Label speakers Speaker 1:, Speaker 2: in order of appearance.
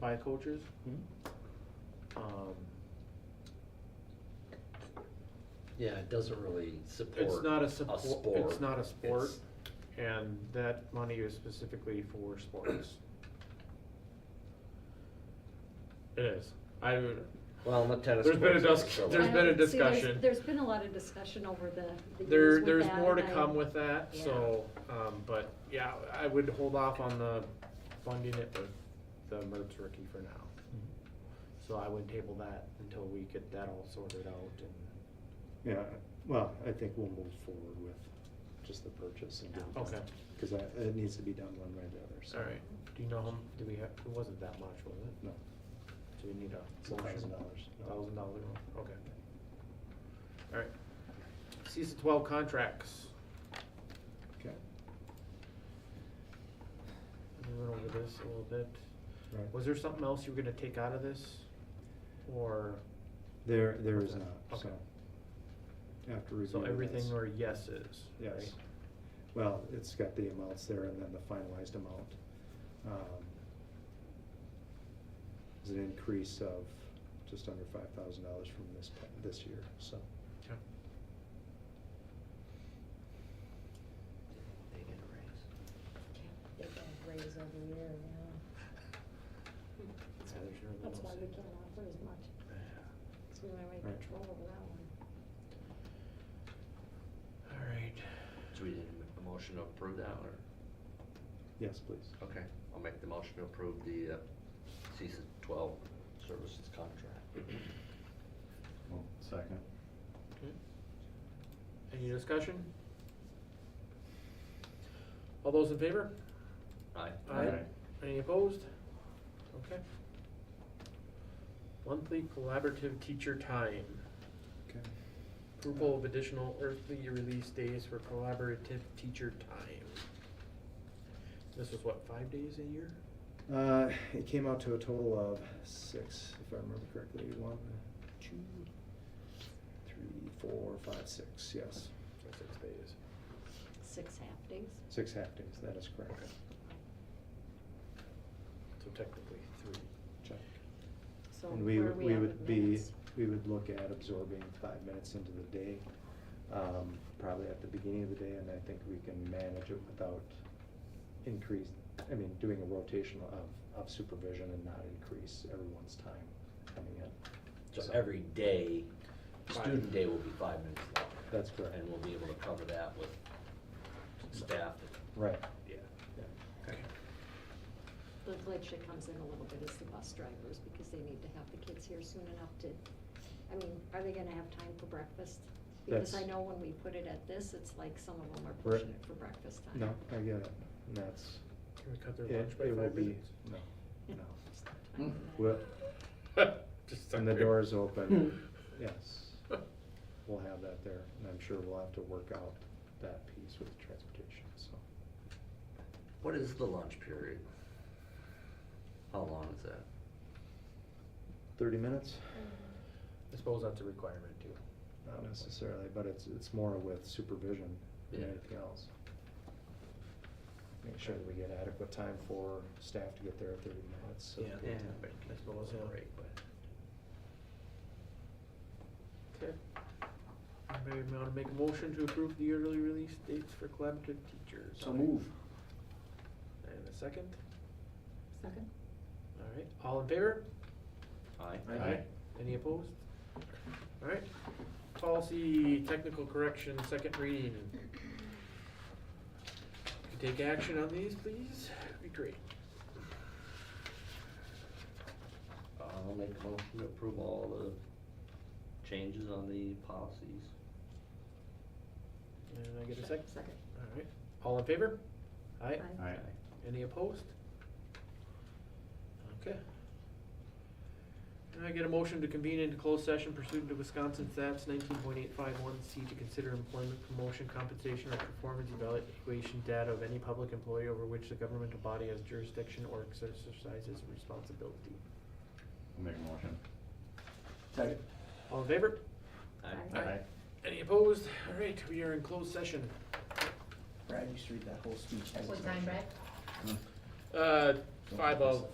Speaker 1: by coaches.
Speaker 2: Hmm?
Speaker 3: Mhm.
Speaker 1: Um,
Speaker 3: Yeah, it doesn't really support.
Speaker 1: It's not a support, it's
Speaker 3: sport.
Speaker 1: not a sport,
Speaker 3: It's-
Speaker 1: and that money is specifically for sports. It is. I would,
Speaker 3: Well, not tennis.
Speaker 1: There's been a
Speaker 3: courts,
Speaker 1: dis-
Speaker 3: so-
Speaker 1: there's
Speaker 4: I
Speaker 1: been a
Speaker 4: don't- see, there's-
Speaker 1: discussion.
Speaker 4: There's been a lot of discussion over the, the years
Speaker 1: There,
Speaker 4: with
Speaker 1: there's
Speaker 4: that,
Speaker 1: more to
Speaker 4: and I-
Speaker 1: come with that,
Speaker 4: Yeah.
Speaker 1: so, um, but, yeah, I would hold off on the funding it with the MERS rookie for now. So I would table that until we get that all sorted out and,
Speaker 2: Yeah, well, I think we'll move forward with just the purchase and get it done.
Speaker 1: okay,
Speaker 2: Cause that, it needs to be done one way or the other, so.
Speaker 1: alright. Do you know, how m- do we have, it wasn't that much, was it?
Speaker 2: No,
Speaker 1: Do we need
Speaker 2: it's
Speaker 1: a
Speaker 2: a
Speaker 1: motion?
Speaker 2: thousand dollars. No.
Speaker 1: Thousand dollar, okay. Alright. Season twelve contracts.
Speaker 2: Okay,
Speaker 1: We went over this a little bit.
Speaker 2: right.
Speaker 1: Was there something else you were gonna take out of this? Or,
Speaker 2: There, there is
Speaker 1: Okay.
Speaker 2: not, so.
Speaker 1: Okay.
Speaker 2: After review.
Speaker 1: so
Speaker 2: of
Speaker 1: everything
Speaker 2: this-
Speaker 1: or yeses, right?
Speaker 2: Yes. Well, it's got the amounts there and then the finalized amount. Um, It's an increase of just under five thousand dollars from this, pa- this year, so.
Speaker 1: Okay.
Speaker 3: They get a raise.
Speaker 5: They don't raise every year, yeah.
Speaker 1: Yeah, there's your
Speaker 5: That's why
Speaker 1: little
Speaker 5: we
Speaker 1: s-
Speaker 5: can't offer as much, because we don't have any
Speaker 2: Right.
Speaker 5: control over that one.
Speaker 1: All right.
Speaker 3: So we did a motion to approve that one?
Speaker 2: Yes, please.
Speaker 3: Okay, I'll make the motion to approve the uh, season twelve services contract.
Speaker 2: Second.
Speaker 1: Okay. Any discussion? All those in favor?
Speaker 3: Aye.
Speaker 2: Aye.
Speaker 1: Any opposed? Okay. Monthly collaborative teacher time.
Speaker 2: Okay.
Speaker 1: Approval of additional earthly release days for collaborative teacher time. This was what, five days a year?
Speaker 2: Uh, it came out to a total of six, if I remember correctly, one, two, three, four, five, six, yes.
Speaker 1: Or six days?
Speaker 4: Six half days.
Speaker 2: Six half days, that is correct.
Speaker 1: So technically three.
Speaker 2: Check.
Speaker 4: So
Speaker 2: And we,
Speaker 4: where are
Speaker 2: would- we
Speaker 4: at
Speaker 2: would
Speaker 4: with
Speaker 2: be,
Speaker 4: minutes?
Speaker 2: we would look at absorbing five minutes into the day, um, probably at the beginning of the day, and I think we can manage it without increase, I mean, doing a rotation of, of supervision and not increase everyone's time coming in.
Speaker 3: So every day, student
Speaker 1: Five.
Speaker 3: day will be five minutes long.
Speaker 2: That's correct.
Speaker 3: And we'll be able to cover that with staff.
Speaker 2: Right.
Speaker 1: Yeah.
Speaker 2: Yeah.
Speaker 1: Okay.
Speaker 4: The glitch that comes in a little bit is the bus drivers, because they need to have the kids here soon enough to, I mean, are they gonna have time for breakfast? Because I
Speaker 2: That's-
Speaker 4: know when we put it at this, it's like some of them are
Speaker 2: We're-
Speaker 4: pushing it for breakfast time.
Speaker 2: No, I get it, and that's,
Speaker 1: Can we cut their
Speaker 2: it,
Speaker 1: lunch by
Speaker 2: it will
Speaker 1: five
Speaker 2: be,
Speaker 1: minutes?
Speaker 2: no, no.
Speaker 4: Just no time for that.
Speaker 2: Well,
Speaker 1: Just
Speaker 2: when the
Speaker 1: sorry.
Speaker 2: doors open, yes, we'll have that there, and I'm sure we'll have to work out that piece with transportation, so.
Speaker 3: What is the lunch period? How long is that?
Speaker 2: Thirty minutes?
Speaker 1: I suppose that's a requirement too.
Speaker 2: Not necessarily, but it's, it's more with supervision than
Speaker 3: Yeah.
Speaker 2: anything else. Make sure that we get adequate time for staff to get there at thirty minutes, so.
Speaker 3: Yeah.
Speaker 1: but I suppose, yeah.
Speaker 3: Break, but-
Speaker 1: Okay. Anybody want to make a motion to approve the yearly release dates for collaborative teachers? And a second?
Speaker 4: Second?
Speaker 1: All right, all in favor?
Speaker 3: Aye.
Speaker 2: Aye. Aye.
Speaker 1: Any opposed? All right. Policy, technical correction, second reading. If you take action on these, please, that'd be great.
Speaker 3: Uh, I'll make a motion to approve all the changes on the policies.
Speaker 1: And I get a second?
Speaker 4: Second.
Speaker 1: All right, all in favor? Aye.
Speaker 4: Aye.
Speaker 2: Aye.
Speaker 1: Any opposed? Okay. Can I get a motion to convene into closed session pursuant to Wisconsin Stats nineteen point eight five one C to consider employment, promotion, compensation, or performance evaluation data of any public employee over which the governmental body has jurisdiction or exercises responsibility.
Speaker 6: I'll make a motion.
Speaker 1: All in favor?
Speaker 4: Aye.
Speaker 6: Aye.
Speaker 1: Any opposed? All right, we are in closed session.
Speaker 6: Brad, you should read that whole speech.
Speaker 7: What time, Brad?
Speaker 1: Uh, five of